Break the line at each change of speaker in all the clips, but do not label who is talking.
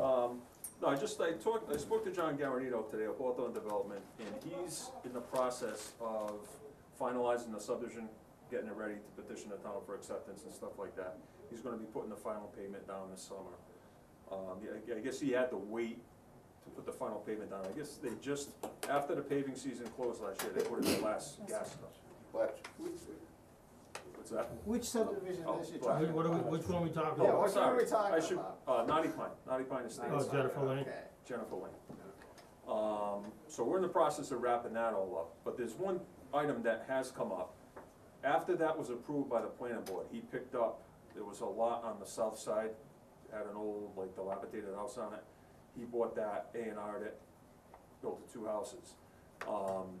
Um, No, I just, I talked, I spoke to John Garinito today of Hawthorne Development, and he's in the process of finalizing the subdivision, getting it ready to petition the town for acceptance and stuff like that. He's gonna be putting the final payment down this summer. Um, I- I guess he had to wait to put the final payment down. I guess they just, after the paving season closed last year, they put in the last gas stuff.
But,
What's that?
Which subdivision
Oh,
is it?
black.
talking
What
about?
which one are we talking
Yeah,
Oh,
about?
what
sorry.
are we talking
I should,
about?
uh, Naughty Pine, Naughty Pine Estates.
Oh, Jennifer Lane.
Okay.
Jennifer Lane. Um, so we're in the process of wrapping that all up, but there's one item that has come up. After that was approved by the planning board, he picked up, there was a lot on the south side, had an old, like dilapidated house on it. He bought that, A and R'd it, built the two houses. Um,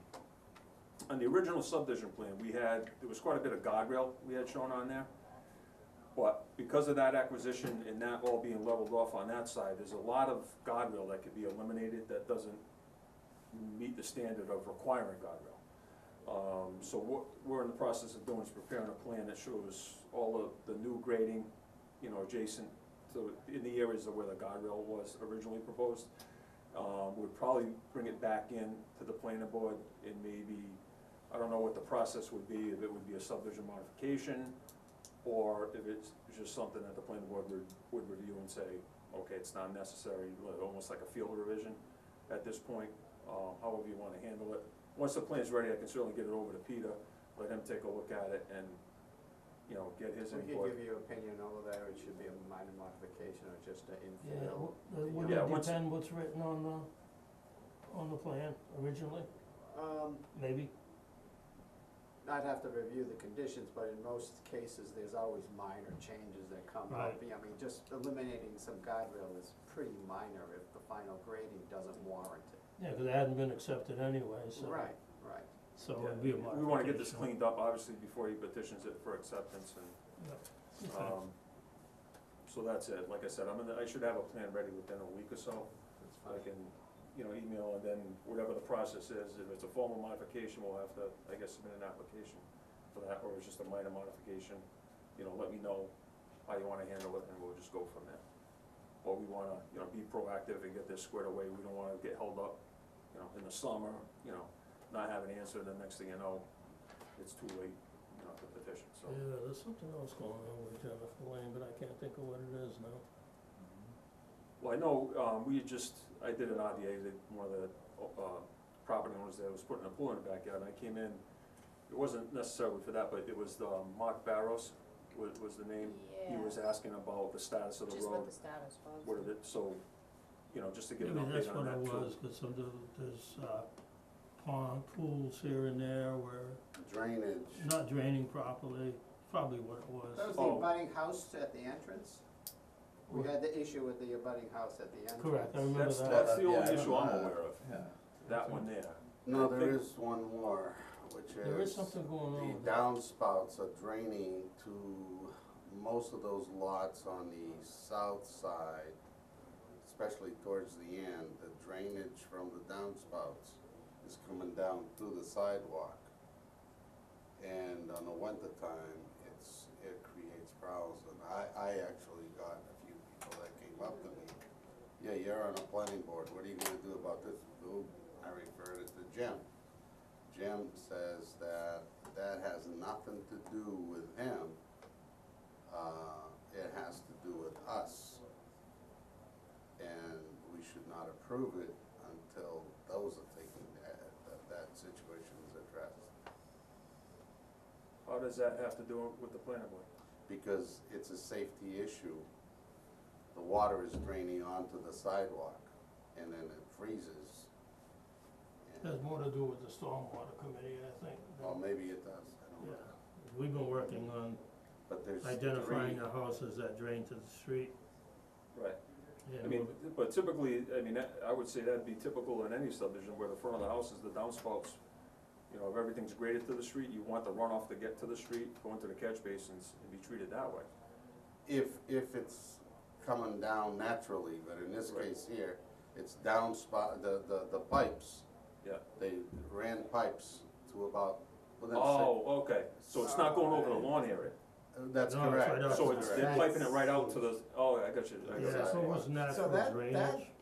on the original subdivision plan, we had, there was quite a bit of guardrail we had shown on there. But because of that acquisition and that all being leveled off on that side, there's a lot of guardrail that could be eliminated that doesn't meet the standard of requiring guardrail. Um, so what we're in the process of doing is preparing a plan that shows all of the new grading, you know, adjacent to, in the areas of where the guardrail was originally proposed. Um, we'd probably bring it back in to the planning board and maybe, I don't know what the process would be, if it would be a subdivision modification, or if it's just something that the planning board would, would review and say, okay, it's not necessary, like, almost like a field revision at this point, um, however you wanna handle it. Once the plan's ready, I can certainly get it over to Peter, let him take a look at it and, you know, get his
we
input.
could give you opinion over there, it should be a minor modification or just an
Yeah,
infill.
wh- uh, would
Yeah,
it
once-
depend what's written on the, on the plan originally,
Um,
maybe?
I'd have to review the conditions, but in most cases, there's always minor changes that come up.
Right.
Yeah, I mean, just eliminating some guardrail is pretty minor if the final grading doesn't warrant it.
Yeah, 'cause it hadn't been accepted anyway, so,
Right, right.
so
Yeah,
it'd be a
We wanna get this
modification.
cleaned up, obviously, before he petitions it for acceptance and,
Okay.
um, so that's it, like I said, I'm gonna, I should have a plan ready within a week or so.
That's
I
fine.
can, you know, email and then whatever the process is, if it's a formal modification, we'll have to, I guess, submit an application for that, or it's just a minor modification, you know, let me know how you wanna handle it and we'll just go from there. But we wanna, you know, be proactive and get this squared away, we don't wanna get held up, you know, in the summer, you know, not have an answer, then next thing you know, it's too late, you know, to petition, so.
Yeah, there's something else going on with Jennifer Lane, but I can't think of what it is now.
Well, I know, um, we had just, I did an RDA, that one of the, uh, property owners there was putting a pool in the backyard, and I came in, it wasn't necessarily for that, but it was, um, Mark Barros was, was the name. He was asking about the status of the
Just what
road,
the status was.
what it, so, you know, just to give an
Maybe that's
update on
what it
that too.
was, 'cause some, of there's, uh, pond pools here and there where
drainage.
not draining properly, probably what it was.
That was the
Oh.
abutting house at the entrance? We had the issue with the abutting house at the entrance.
Correct, I remember
That's,
that.
that's the
Yeah,
only
I
issue
don't
I'm
know.
aware of, that one there.
No,
I
there
think-
is one more, which is.
There is something going on with
The
that.
downspouts are draining to most of those lots on the south side, especially towards the end. The drainage from the downspouts is coming down through the sidewalk. And on the winter time, it's, it creates problems. And I, I actually got a few people that came up to me. Yeah, you're on a planning board. What are you gonna do about this? Ooh, I referred it to Jim. Jim says that that has nothing to do with him. Uh, it has to do with us. And we should not approve it until those are taken, that, that- that situation is addressed.
How does that have to do with the planning board?
Because it's a safety issue. The water is draining onto the sidewalk and then it freezes.
Has
And-
more to do with the stormwater committee, I think. than-
Oh,
Well, maybe it does, I don't
Yeah,
know.
we've been working on
But there's three.
identifying the houses that drain to the street.
Right.
Yeah,
I mean, but typically, I mean, that- I would say that'd be typical in any subdivision where the front of the house is the downspouts. You know, if everything's graded to the street, you want the runoff to get to the street, go into the catch basins and be treated that way.
if, if it's coming down naturally, but in this
Right.
case here, it's down spot, the, the, the pipes.
Yeah.
They ran pipes to about, within six,
Oh, okay, so it's not going over the lawn area,
that's
No, it's
correct.
right up.
so it's, they're
correct.
piping it right out to the, oh, I got you, I got you.
Yeah, so it was
So
natural
that-
drainage.
that-